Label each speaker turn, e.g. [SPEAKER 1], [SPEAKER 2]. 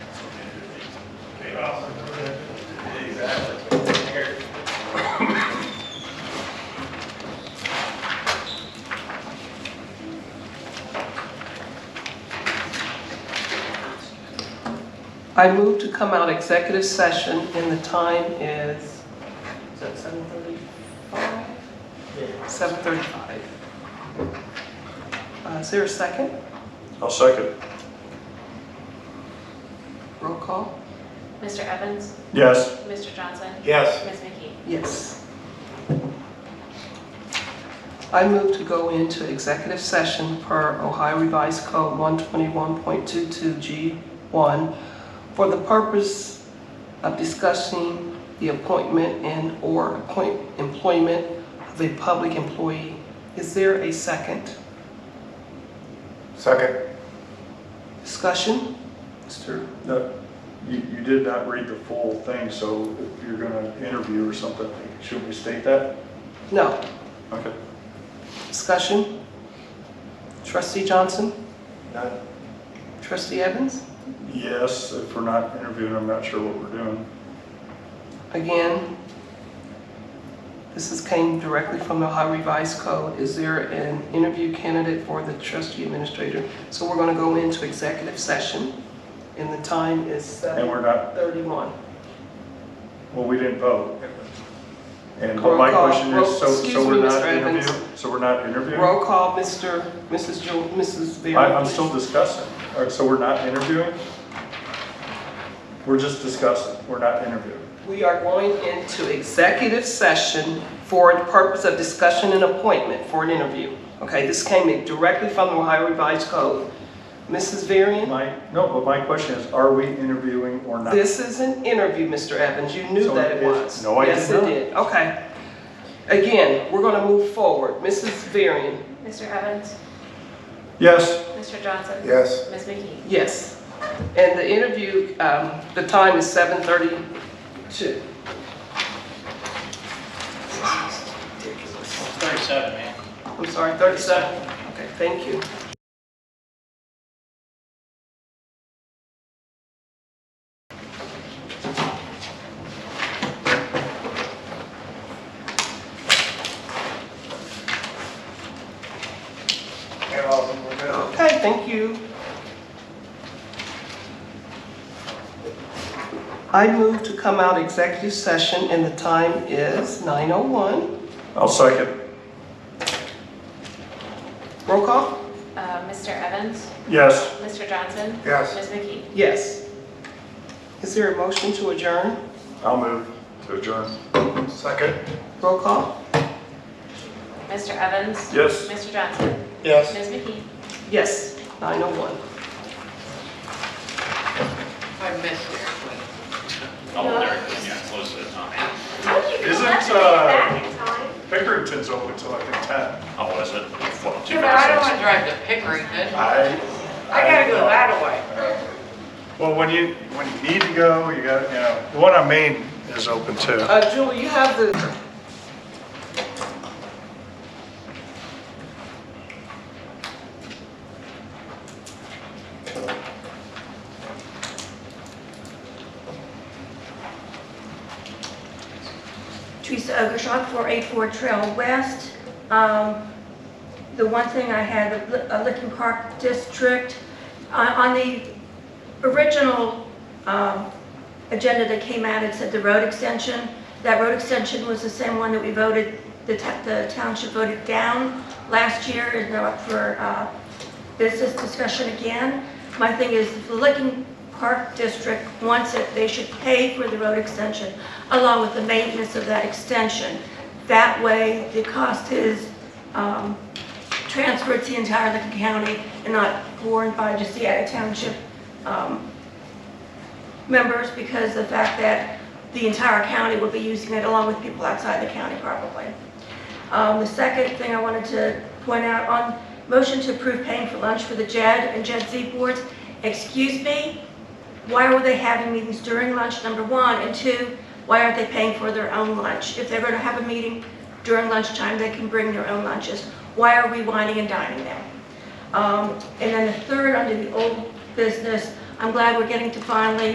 [SPEAKER 1] it off.
[SPEAKER 2] Exactly. Here.
[SPEAKER 3] I move to come out executive session and the time is, is that 7:35? 7:35. Uh, Is there a second?
[SPEAKER 4] I'll second.
[SPEAKER 3] Roll call?
[SPEAKER 5] Mr. Evans?
[SPEAKER 4] Yes.
[SPEAKER 5] Mr. Johnson?
[SPEAKER 1] Yes.
[SPEAKER 5] Ms. McKee?
[SPEAKER 3] Yes. I move to go into executive session per Ohio Revised Code 121.22G1 for the purpose of discussing the appointment and/or appoint- employment of a public employee. Is there a second?
[SPEAKER 1] Second.
[SPEAKER 3] Discussion? Mr.
[SPEAKER 4] No, you, you did not read the full thing, so if you're gonna interview or something, should we state that?
[SPEAKER 3] No.
[SPEAKER 4] Okay.
[SPEAKER 3] Discussion? Trustee Johnson?
[SPEAKER 1] None.
[SPEAKER 3] Trustee Evans?
[SPEAKER 4] Yes, if we're not interviewing, I'm not sure what we're doing.
[SPEAKER 3] Again, this is came directly from the Ohio Revised Code. Is there an interview candidate for the trustee administrator? So we're going to go into executive session, and the time is
[SPEAKER 4] And we're
[SPEAKER 3] 7:31.
[SPEAKER 4] not, well, we didn't vote. And but my
[SPEAKER 3] Roll call.
[SPEAKER 4] question
[SPEAKER 3] Roll-
[SPEAKER 4] is, so,
[SPEAKER 3] excuse
[SPEAKER 4] so
[SPEAKER 3] me,
[SPEAKER 4] we're not
[SPEAKER 3] Mr. Evans.
[SPEAKER 4] interviewing? So we're not interviewing?
[SPEAKER 3] Roll call, Mr., Mrs. Jewel, Mrs. Vera.
[SPEAKER 4] I, I'm
[SPEAKER 3] please.
[SPEAKER 4] still discussing. All right, so we're not interviewing? We're just discussing, we're not interviewing.
[SPEAKER 3] We are going into executive session for the purpose of discussion and appointment for an interview. Okay, this came in directly from the Ohio Revised Code. Mrs. Varian?
[SPEAKER 4] My, no, but my question is, are we interviewing or not?
[SPEAKER 3] This is an interview, Mr. Evans, you knew
[SPEAKER 4] So
[SPEAKER 3] that
[SPEAKER 4] it
[SPEAKER 3] it
[SPEAKER 4] is-
[SPEAKER 3] was.
[SPEAKER 4] no, I did not.
[SPEAKER 3] Yes, it did, okay. Again, we're gonna move forward, Mrs. Varian,
[SPEAKER 5] Mr. Evans?
[SPEAKER 4] Yes.
[SPEAKER 5] Mr. Johnson?
[SPEAKER 1] Yes.
[SPEAKER 5] Ms. McKee?
[SPEAKER 3] yes. And the interview, um, the time is seven thirty-two.
[SPEAKER 2] Thirty-seven, man.
[SPEAKER 3] I'm sorry, thirty-seven, okay, thank you.
[SPEAKER 1] And all of them were good.
[SPEAKER 3] Okay, thank you. I move to come out executive session and the time is nine oh one.
[SPEAKER 4] I'll second.
[SPEAKER 3] Roll call?
[SPEAKER 5] Uh, Mr. Evans?
[SPEAKER 4] Yes.
[SPEAKER 5] Mr. Johnson?
[SPEAKER 1] Yes.
[SPEAKER 5] Ms. McKee?
[SPEAKER 3] Yes. Is there a motion to adjourn?
[SPEAKER 4] I'll move to adjourn.
[SPEAKER 1] Second.
[SPEAKER 3] Roll call?
[SPEAKER 5] Mr. Evans?
[SPEAKER 4] Yes.
[SPEAKER 5] Mr. Johnson?
[SPEAKER 1] Yes.
[SPEAKER 5] Ms. McKee?
[SPEAKER 3] Yes, 901.
[SPEAKER 2] Oh, there, yeah, close to the time.
[SPEAKER 4] Isn't, uh, Pickerington's open till like ten?
[SPEAKER 2] Oh, was it? Well, two
[SPEAKER 6] Yeah, but I don't
[SPEAKER 2] minutes.
[SPEAKER 6] wanna drive to Pickerington.
[SPEAKER 4] I.
[SPEAKER 6] I gotta go that way.
[SPEAKER 4] Well, when you, when you need to go, you gotta, you know, the one on Main is open too.
[SPEAKER 3] Uh, Julie, you have the...
[SPEAKER 7] Teresa Ogerschak, 484 Trail West. Um, The one thing I had, the Li- uh, Licking Park District, on on the original um, agenda that came out, it said the road extension. That road extension was the same one that we voted, the ta- the township voted down last year, and now up for uh, business discussion again. My thing is, if the Licking Park District wants it, they should pay for the road extension along with the maintenance of that extension. That way, the cost is um, transferred to the entire Licking County and not borne by just the Attic Township um, members because the fact that the entire county will be using it along with people outside the county probably. Um, The second thing I wanted to point out on motion to approve paying for lunch for the JED and JED Z boards, excuse me, why were they having meetings during lunch, number one? And two, why aren't they paying for their own lunch? If they're going to have a meeting during lunchtime, they can bring their own lunches. Why are we whining and dining them? Um, And then the third, under the old business, I'm glad we're getting to finally